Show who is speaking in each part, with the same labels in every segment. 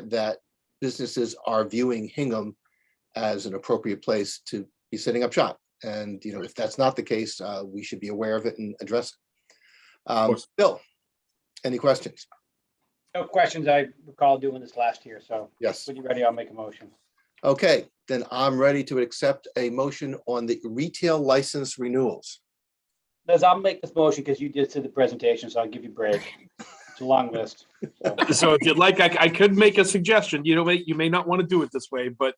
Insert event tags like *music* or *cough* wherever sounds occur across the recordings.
Speaker 1: that businesses are viewing Hingham as an appropriate place to be setting up shop. And, you know, if that's not the case, uh, we should be aware of it and address it. Um,
Speaker 2: course.
Speaker 1: Bill, any questions?
Speaker 3: No questions. I recall doing this last year, so
Speaker 1: Yes.
Speaker 3: when you're ready, I'll make a motion.
Speaker 1: Okay, then I'm ready to accept a motion on the retail license renewals.
Speaker 3: Liz, I'll make this motion because you did the presentation, so I'll give you a break. It's a long list. so.
Speaker 2: So if you'd like, I, I could make a suggestion. You know, may- you may not want to do it this way, but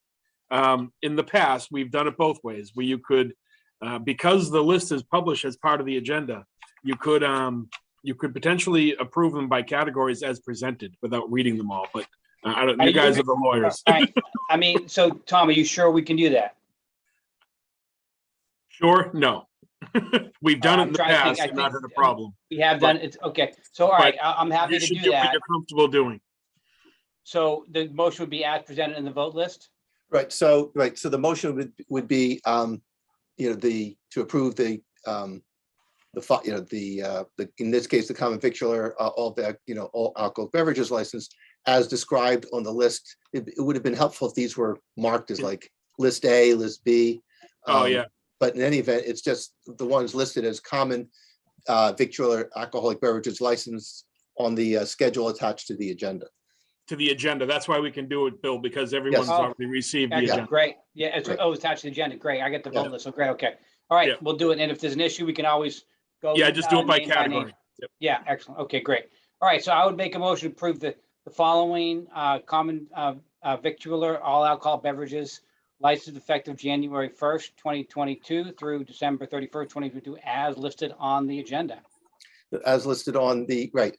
Speaker 2: um, in the past, we've done it both ways, where you could, uh, because the list is published as part of the agenda, you could, um, you could potentially approve them by categories as presented without reading them all, but uh, I don't,
Speaker 3: Are
Speaker 2: you
Speaker 3: you-
Speaker 2: guys are the lawyers.
Speaker 3: I I mean, so Tom, are you sure we can do that?
Speaker 2: Sure, no. *laughs* We've done it
Speaker 3: I'm
Speaker 2: in the
Speaker 3: trying to think-
Speaker 2: past,
Speaker 3: I
Speaker 2: and not had
Speaker 3: think-
Speaker 2: a problem.
Speaker 3: We have done, it's, okay, so all right, I- I'm happy
Speaker 2: You
Speaker 3: to
Speaker 2: should
Speaker 3: do
Speaker 2: do what
Speaker 3: that.
Speaker 2: you're comfortable doing.
Speaker 3: So the motion would be as presented in the vote list?
Speaker 1: Right, so, right, so the motion would, would be, um, you know, the, to approve the, um, the, fi- you know, the, uh, the, in this case, the common victular, uh, all the, you know, all alcohol beverages license as described on the list. It, it would have been helpful if these were marked as like list A, list B.
Speaker 2: Oh,
Speaker 1: um,
Speaker 2: yeah.
Speaker 1: But in any event, it's just the ones listed as common, uh, victular alcoholic beverages license on the, uh, schedule attached to the agenda.
Speaker 2: To the agenda. That's why we can do it, Bill, because everyone's
Speaker 1: Oh,
Speaker 2: already received the agenda.
Speaker 3: Excellent, great. Yeah, it's,
Speaker 1: Right.
Speaker 3: oh, it's attached to the agenda. Great, I get the
Speaker 1: Yeah.
Speaker 3: vote list, so great, okay. All
Speaker 2: Yeah.
Speaker 3: right, we'll do it, and if there's an issue, we can always go.
Speaker 2: Yeah, just do
Speaker 3: uh,
Speaker 2: it by
Speaker 3: name name.
Speaker 2: category.
Speaker 3: Yeah, excellent. Okay, great. All right, so I would make a motion to approve the, the following uh, common uh, uh, victualler, all alcohol beverages license effective January 1st, 2022 through December 31st, 2022, as listed on the agenda.
Speaker 1: as listed on the, right,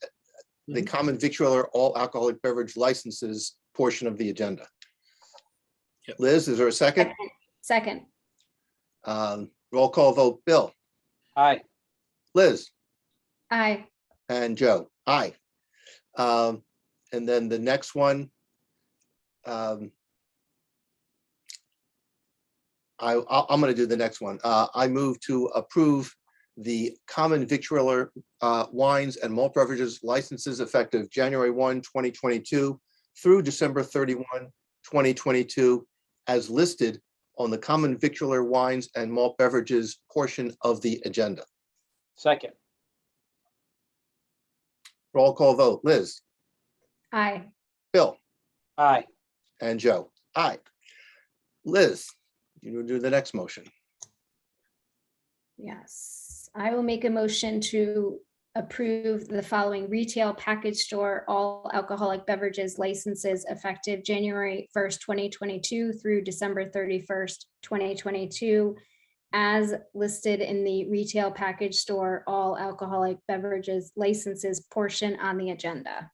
Speaker 1: the common victualler all alcoholic beverage licenses portion of the agenda.
Speaker 2: Yep.
Speaker 1: Liz, is there a second?
Speaker 4: Second,
Speaker 1: Um, Roll call vote, Bill,
Speaker 3: Aye.
Speaker 1: Liz,
Speaker 4: aye,
Speaker 1: and Joe, aye. Um, And then the next one. um, I, I- I'm going to do the next one. Uh, I move to approve the common victualler uh, wines and malt beverages licenses effective January 1, 2022 through December 31, 2022, as listed on the common victualler wines and malt beverages portion of the agenda.
Speaker 3: Second.
Speaker 1: Roll call vote, Liz,
Speaker 4: aye,
Speaker 1: Bill.
Speaker 3: Aye.
Speaker 1: And Joe, aye. Liz, you will do the next motion.
Speaker 4: yes. I will make a motion to approve the following retail package store, all alcoholic beverages licenses effective January first, twenty twenty-two through December thirty-first, twenty twenty-two, as listed in the retail package store, all alcoholic beverages licenses portion on the agenda.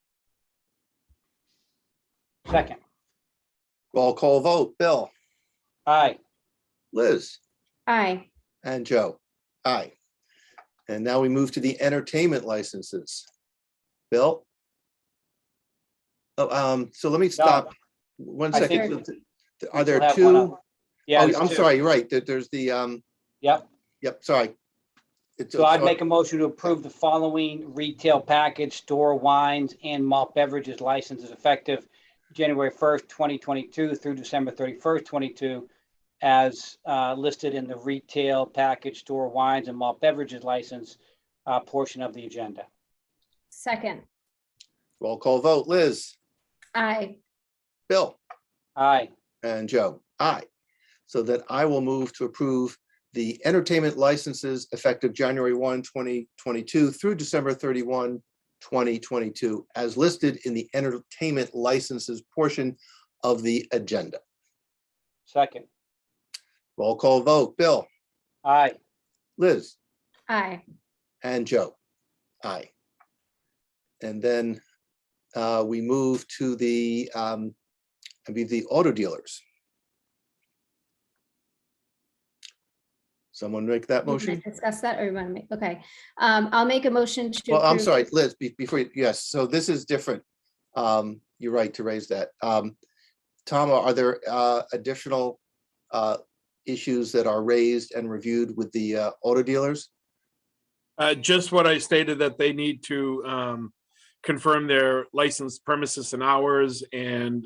Speaker 3: Second.
Speaker 1: Roll call vote, Bill,
Speaker 3: Aye.
Speaker 1: Liz,
Speaker 4: Aye,
Speaker 1: and Joe, aye. And now we move to the entertainment licenses. Bill? Oh, um, so let me stop. One
Speaker 3: I
Speaker 1: second.
Speaker 3: think
Speaker 1: So, Are there
Speaker 3: We'll have one
Speaker 1: two?
Speaker 3: other.
Speaker 1: Oh,
Speaker 3: Yeah. there's
Speaker 1: I'm
Speaker 3: two.
Speaker 1: sorry, you're right. There- There's the, um.
Speaker 3: Yep.
Speaker 1: Yep, sorry. It's-
Speaker 3: So I'd make a motion to approve the following retail package, store wines and malt beverages licenses effective January first, twenty twenty-two through December thirty-first, twenty-two, as uh, listed in the retail package, store wines and malt beverages license uh, portion of the agenda.
Speaker 4: second,
Speaker 1: Roll call vote, Liz,
Speaker 4: aye,
Speaker 1: Bill?
Speaker 3: Aye,
Speaker 1: And Joe, aye. So that I will move to approve the entertainment licenses effective January 1, 2022 through December 31, 2022, as listed in the entertainment licenses portion of the agenda.
Speaker 3: second.
Speaker 1: Roll call vote, Bill,
Speaker 3: Aye,
Speaker 1: Liz,
Speaker 4: aye.
Speaker 1: and Joe, aye. And then uh, we move to the, um, I mean, the auto dealers. Someone make that
Speaker 4: We wanna
Speaker 1: motion?
Speaker 4: Discuss that or you want to make, okay. Um, I'll make a motion to.
Speaker 1: Well, I'm
Speaker 4: approve-
Speaker 1: sorry, Liz, be- before, you yes, so this is different. Um, You're right to raise that. Um, Tom, are there uh, additional uh, issues that are raised and reviewed with the uh, auto dealers?
Speaker 2: Uh, just what I stated that they need to, um, confirm their license premises and hours and